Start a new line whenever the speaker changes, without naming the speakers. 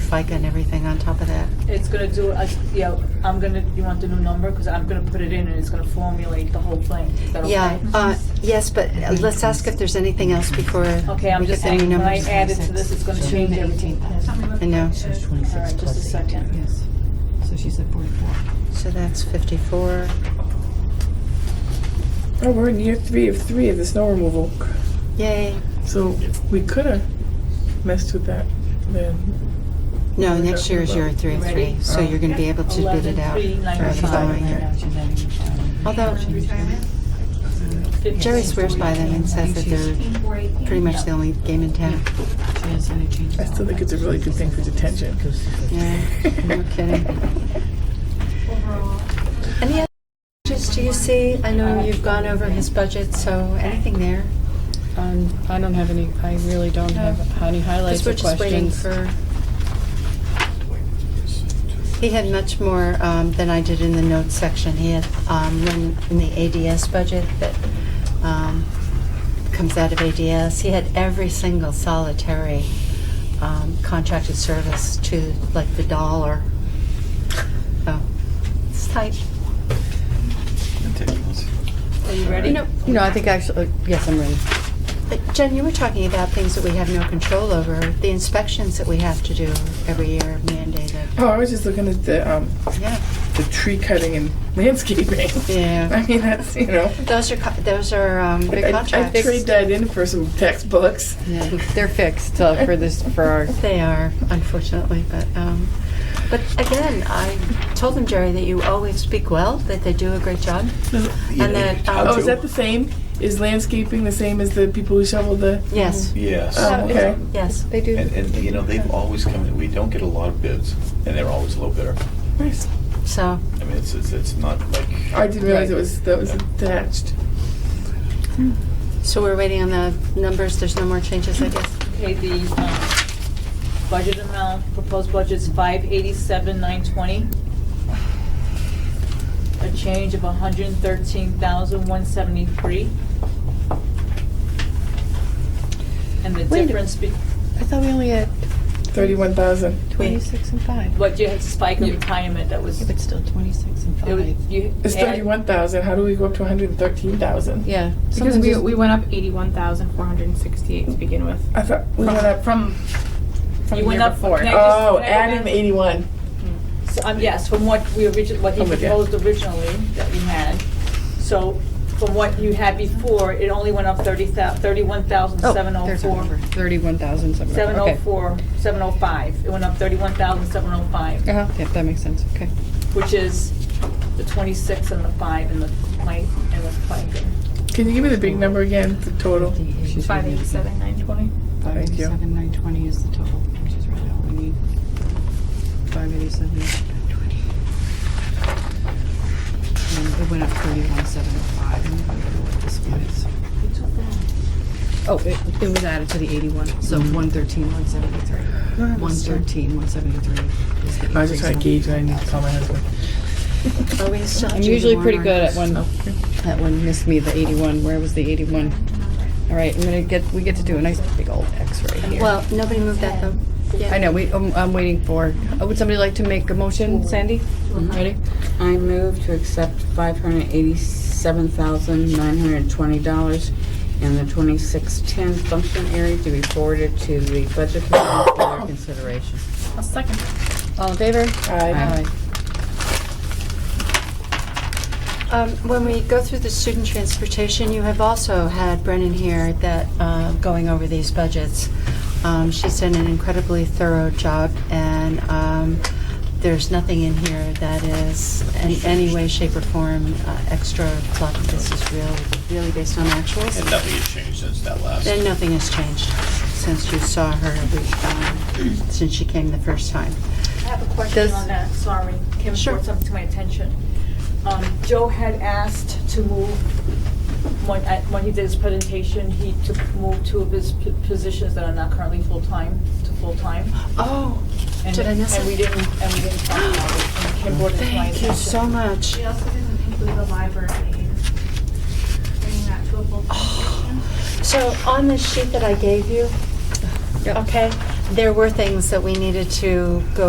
FICA and everything on top of that.
It's gonna do, a- yeah, I'm gonna, you want the new number? Because I'm gonna put it in and it's gonna formulate the whole thing. Is that okay?
Yeah, uh, yes, but uh, let's ask if there's anything else before
Okay, I'm
we
just
get any
saying, when I
numbers.
add it to this, it's gonna change everything.
I know,
Says
All
twenty-six
right, just a
plus eight.
second.
Yes. So she said 44.
so that's fifty-four.
Oh, we're in year three of three of the snow removal.
Yay.
So we could have messed with that then.
No, next year is your three, oh
Ready?
three, so you're gonna be able to bid it out. for the
11,395.
following year. Although Jerry swears by them and says that they're pretty much the only game in town.
She has any changes.
I still think it's a really good thing for detention.
Yeah, no kidding. Any other changes do you see? I know you've gone over his budget, so anything there?
Um, I don't have any, I really don't
No.
have any highlights
Because we're
or
just waiting
questions.
for. He had much more um, than I did in the notes section. He had, um, in in the ADS budget that um, comes out of ADS, he had every single solitary um, contracted service to like the dollar. So, it's tight.
Are you ready?
You know,
You know, I think actually, yes, I'm ready.
But Jen, you were talking about things that we have no control over, the inspections that we have to do every year mandated.
Oh, I was just looking at the, um,
Yeah,
the tree cutting and landscaping.
yeah.
I mean, that's, you know.
Those are, co- those are um, big
I- I
contracts.
trade that in for some textbooks.
They're fixed uh, for this, for our,
They are, unfortunately, but, um, but again, I told them, Jerry, that you always speak well, that they do a great job. And then, um,
Oh, is that the same? Is landscaping the same as the people who shovel the?
Yes,
Yes.
Oh, okay.
yes.
they do.
And, and, you know, they've always come, in- we don't get a lot of bids, and they're always low bidder.
Nice.
So,
I mean, it's, it's, it's not like,
I didn't realize it
Right.
was, that was attached.
so we're waiting on the numbers. There's no more changes, I guess.
Okay, the um, budget amount, proposed budget's five eighty-seven, nine twenty. A change of hundred and thirteen thousand, one seventy-three. And the
Wait a-
difference be,
I thought we only had
Thirty-one thousand.
twenty-six and five.
what you had spike of
Yeah.
retirement that was.
Yeah, but still 26 and 5.
it was- you
It's
add-
thirty-one thousand. How do we go up to one hundred and thirteen thousand?
Yeah.
Because
something
we,
just-
we went up eighty-one thousand four hundred and sixty-eight to begin with.
I thought we went up.
From, from
You
the
went
year
up-
before.
can I just-
Oh,
can I go
add in
back?
the eighty-one.
So, um, yes, from what we origin, what he
I'm with you.
proposed originally that you had. So from what you had before, it only went up thirty thou, thirty-one thousand,
Oh,
seven oh
there's our number.
four.
31,700.
Seven oh
Okay.
four, seven oh five. It went up thirty-one thousand, seven oh five,
Uh-huh, yeah, that makes sense, okay.
which is the twenty-six and the five and the light and the five.
Can you give me the big number again? The total.
She's
Five
really-
eighty-seven, nine twenty.
Thank you.
587, 920 is the total, which is right out we need. 587, 920.
Um,
And it went up
oh
3175. I don't know what this one is. Oh, it, it was added to the 81, so
Mm-hmm.
113, 173. 113, 173 is the
I was just trying to
increase
gauge and I need to call my husband.
Are we still?
I'm usually pretty good at when, that one missed me, the 81, where was the 81? All right, I'm gonna get, we get to do a nice big old X right here.
Well, nobody moved that though.
I know, we, I'm, I'm waiting for, uh, would somebody like to make a motion, Sandy? Ready?
I move to accept $587,920 in the 2610 function area to be forwarded to the budget committee for their consideration.
A second.
All in favor?
Uh-huh.
Aye.
Um, When we go through the student transportation, you have also had Brennan here that, uh, going over these budgets. Um, She's done an incredibly thorough job, and um, there's nothing in here that is in any way, shape, or form uh, extra fluff. This is real, really based on actuals.
and nothing has changed since that last.
Then nothing has changed since you saw her, um, since she came the first time.
I have a question
Does-
on that, sorry. Kim
Sure.
brought something to my attention. Um, Joe had asked to move, when, at- when he did his presentation, he to move two of his p- positions that are not currently full-time to full-time.
Oh,
And-
Did I miss
And
it?
we didn't, and we didn't talk about it. And Kim brought it to my
thank you
attention.
so much.
We also didn't include the library, bringing that
Oh.
to a full-time position.
So on the sheet that I gave you,
Yep.
okay, there were things that we needed to go